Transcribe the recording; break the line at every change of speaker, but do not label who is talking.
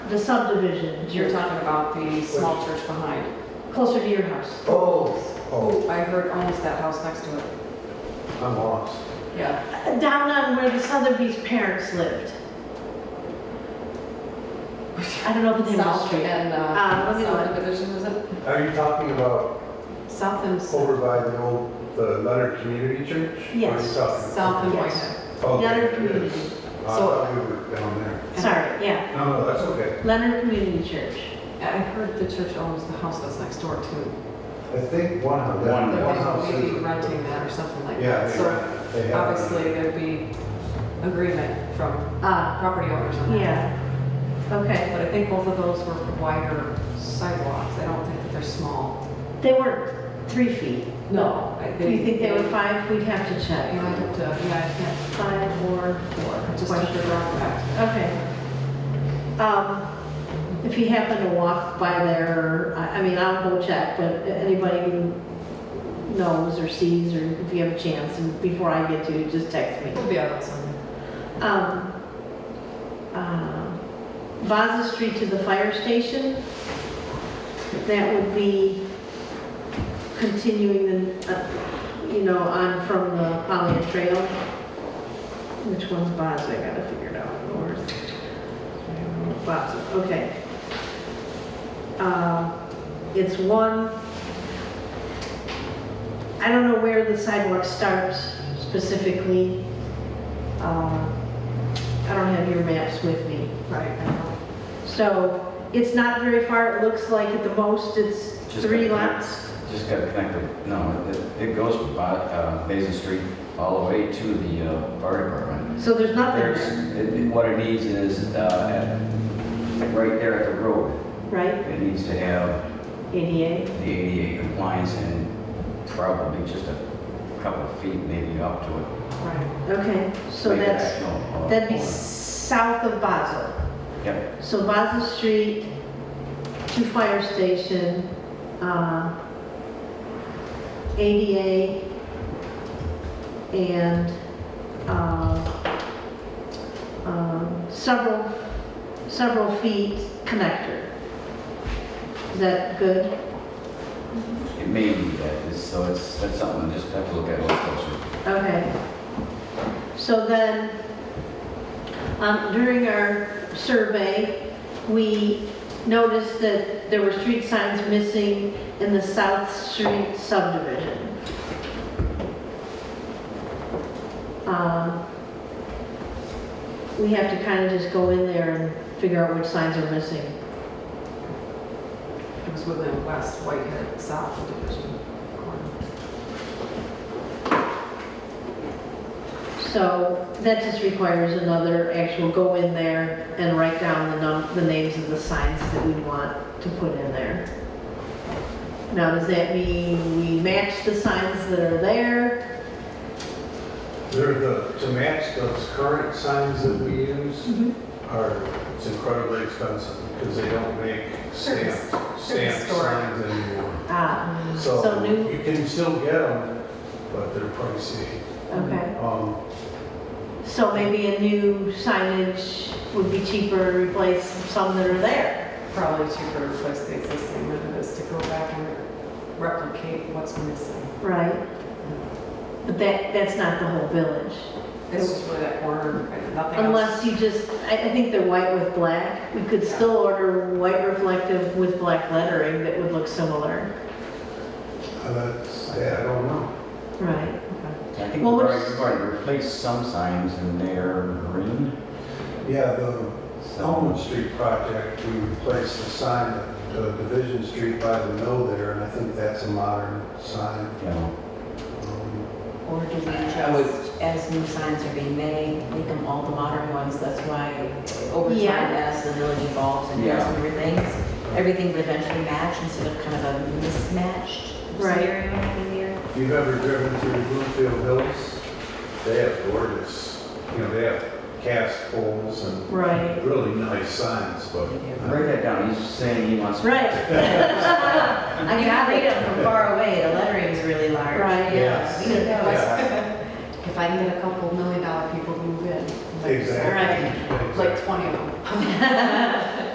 the subdivision.
You're talking about the small church behind.
Closer to your house.
Oh, oh,
I heard almost that house next to it.
I'm lost.
Yeah.
Down on where the Sotheby's parents lived. I don't know the name of the
South
street.
and,
Uh,
uh,
what's it
South
like?
Division, is it?
Are you talking about
South and, S-
over by the old, the Leonard Community Church? Or are you
Yes.
talking-
South and
Yes.
Whitehead.
Okay,
Leonard
yes.
Community.
I thought we were down there.
Sorry, yeah.
No, no, that's okay.
Leonard Community Church.
I heard the church owns the house that's next door too.
I think one house, that
One.
one
Like
house
they may
is.
be renting that or something like
Yeah,
that.
they,
So
they have.
obviously there'd be agreement from uh,
Ah,
property owners on that.
yeah. Okay.
But I think both of those were wider sidewalks. I don't think that they're small.
They were three feet.
No. I
Do you think they were five? We'd have to
Yeah, I
check.
have to, yeah, I can't.
Five or
I
four.
Just
Question.
took the wrong back.
Okay. Um, If you happen to walk by there, I I mean, I'll go check, but anybody who knows or sees, or if you have a chance, and before I get to, just text me.
We'll be out on Sunday.
Um, uh, Vaza Street to the fire station, that would be continuing the, uh, you know, on from the Polly Trail. Which one's Vaza, I gotta figure it out, where's, Vaza, okay. Uh, It's one, I don't know where the sidewalk starts specifically. Uh, I don't have your maps with me.
Right. I know.
So it's not very far, it looks like at the most it's
Just
three
got-
lots.
Just got connected, no, it, it goes by, uh, Basin Street all the way to the, uh, fire department.
So there's nothing
There's,
there,
it- it- what it needs is, uh, at- right there at the road,
right? E
it needs to have
ADA,
the ADA compliance and probably just a couple of feet maybe up to it.
Right.
okay, so
Make it
that's,
actual, uh,
that'd be
corner.
south of Basel.
Yep,
So Basel Street to fire station, uh, ADA, and uh, um, several, several feet connector. Is that good?
it may be that, It's- so it's, that's something, just have to look at a little closer.
Okay. So then, um, during our survey, we noticed that there were street signs missing in the South Street subdivision. Um, We have to kind of just go in there and figure out which signs are missing.
It was Woodland West, Whitehead, South Division. corner.
So that just requires another actual go in there and write down the num, the names of the signs that we want to put in there. Now, does that mean we match the signs that are there?
They're the, to match those current signs that we use
Mhm.
are, it's incredibly expensive because they don't make
They're
stamped, stamped
historic.
signs anymore.
Ah,
Um,
So
So
new-
you can still get them, but they're pricey.
okay.
Um,
So maybe a new signage would be cheaper to replace some that are there.
Probably cheaper to replace the existing than it is to go back and replicate what's missing.
Right. But that, that's not the whole village.
It's just really that corner, right? nothing else.
Unless you just, I, I think they're white with black. We could still order white reflective with black lettering that would look similar.
uh, that's, yeah, I don't know.
Right.
I think
Well,
we're
what's-
going to replace some signs and they're green.
Yeah, the
so-
Elm Street project, we replaced the sign at the Division Street by the mill there, and I think that's a modern
Oh.
sign.
You know,
Um,
Or do we
I would-
just, as new signs are being made, make them all the modern ones? That's why over
Yeah.
time, as the village evolves and does
Yeah.
newer things, everything would eventually match instead of kind of a mismatched
Right.
scenario in here.
If you've ever driven through Bluefield Hills, they have gorgeous, you know, they have cast poles and
Right.
really nice signs, but
Write that down, he's saying he wants.
Right.
I can read them from far away, the lettering's really large.
Right.
Yes.
We could go.
Yeah.
If I can get a couple million dollar people to move in. like-
exactly.
Like 20 of them.